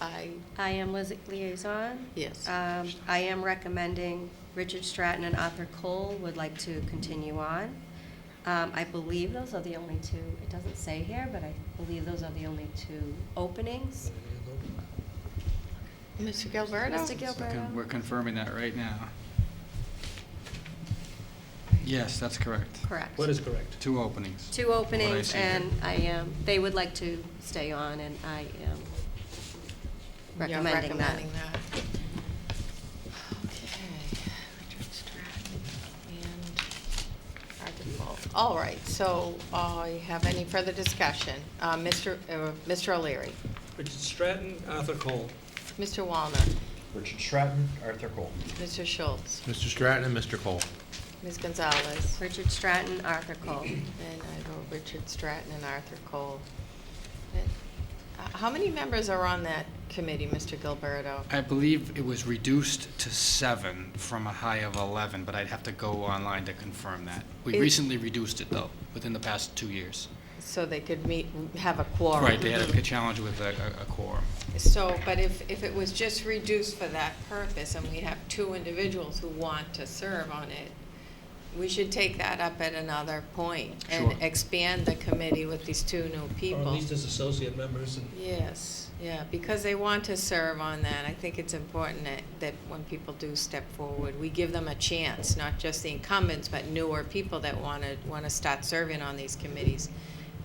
I, I am Liz- liaison. Yes. Um, I am recommending Richard Stratton and Arthur Cole would like to continue on. Um, I believe those are the only two, it doesn't say here, but I believe those are the only two openings. Mr. Gilberto? Mr. So con- Gilberto? We're confirming that right now. Yes, that's correct. Correct. What is correct? Two openings. Two openings, see here. and I am, they would like to stay on, and I am You're recommending that. recommending that. Okay, Richard Stratton and Arthur Cole. All right, so, uh, you have any further discussion? Uh, Mr. uh, Mr. O'Leary, Richard Stratton, Arthur Cole. Mr. Walner, Richard Stratton, Arthur Cole. Mr. Schultz, Mr. Stratton and Mr. Cole. Ms. Gonzalez, Richard Stratton, Arthur Cole. and I vote Richard Stratton and Arthur Cole. Uh, How many members are on that committee, Mr. Gilberto? I believe it was reduced to seven from a high of 11, but I'd have to go online to confirm that. We Is- recently reduced it, though, within the past two years. So they could meet, have a quorum. Right, they had a challenge with a a- a quorum. So, but if, if it was just reduced for that purpose, and we have two individuals who want to serve on it, we should take that up at another point Sure. and expand the committee with these two new Or at people. least as associate members and. Yes, yeah, because they want to serve on that. I think it's important that, that when people do step forward, we give them a chance, not just the incumbents, but newer people that want to, want to start serving on these committees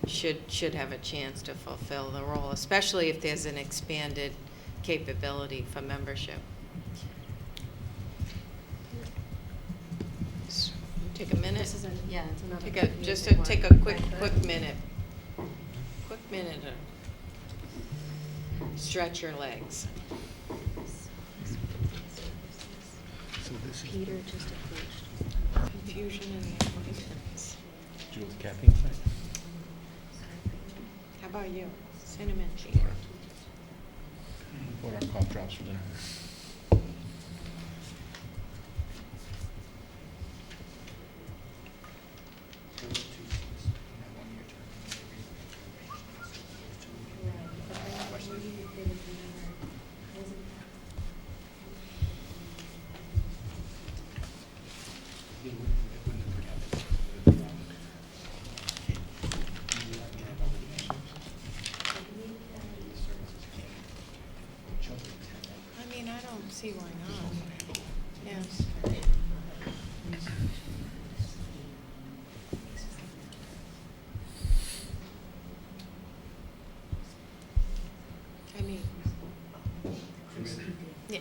should, should have a chance to fulfill the role, especially if there's an expanded capability for membership. So, Take a minute. This is, an- yeah, it's another. Take a, just music a, one, take a if I quick, could. quick minute. Quick minute. to Stretch your legs. Peter just approached. Confusion and appointments. Jules Caffey. How about you? Cinnamon. What are cough drops for dinner? I mean, I don't see why not. Yes. I mean. Yeah,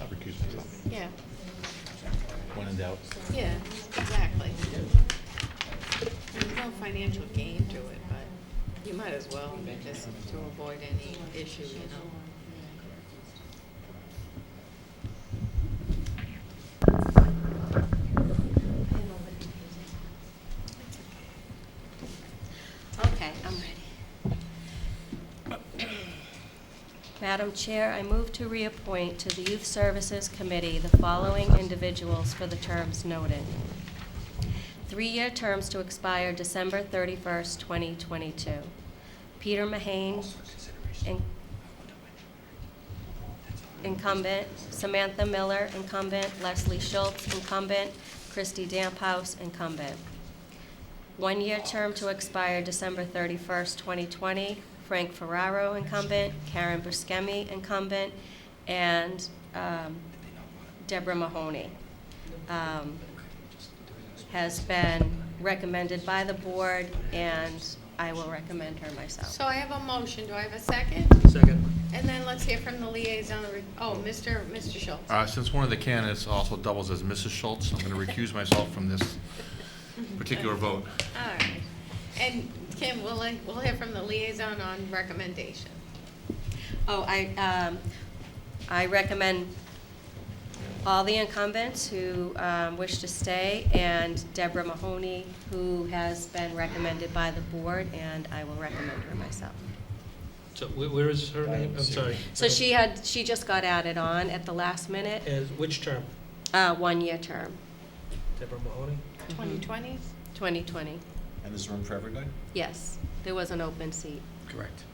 I'll recuse myself. yeah, When in doubt. yeah, exactly. There's no financial gain to it, but you might as well, just to avoid any issue, you know. Okay, I'm ready. Madam Chair, I move to reappoint to the Youth Services Committee the following individuals for the terms noted. Three-year terms to expire December 31st, 2022. Peter Mahane, in- incumbent, Samantha Miller, incumbent, Leslie Schultz, incumbent, Christy Damphouse, incumbent. One-year term to expire December 31st, 2020. Frank Ferraro, incumbent. Karen Buscemi, incumbent. And um, Deborah Mahoney. um, Has been recommended by the board, and I will recommend her myself. So I have a motion, do I have a second? Second. And then let's hear from the liaison, re- oh, Mr. Mr. Schultz. Uh, Since one of the candidates also doubles as Mrs. Schultz, I'm going to recuse myself from this particular vote. All right. And Kim, we'll, li- we'll hear from the liaison on recommendation. Oh, I, um, I recommend all the incumbents who, um, wish to stay and Deborah Mahoney, who has been recommended by the board, and I will recommend her myself. So wh- where is her name? I'm sorry. So she had, she just got added on at the last minute, As, which term? uh, one-year term, Deborah Mahoney? 2020? twenty twenty. And there's room for everybody? Yes, there was an open seat. Correct.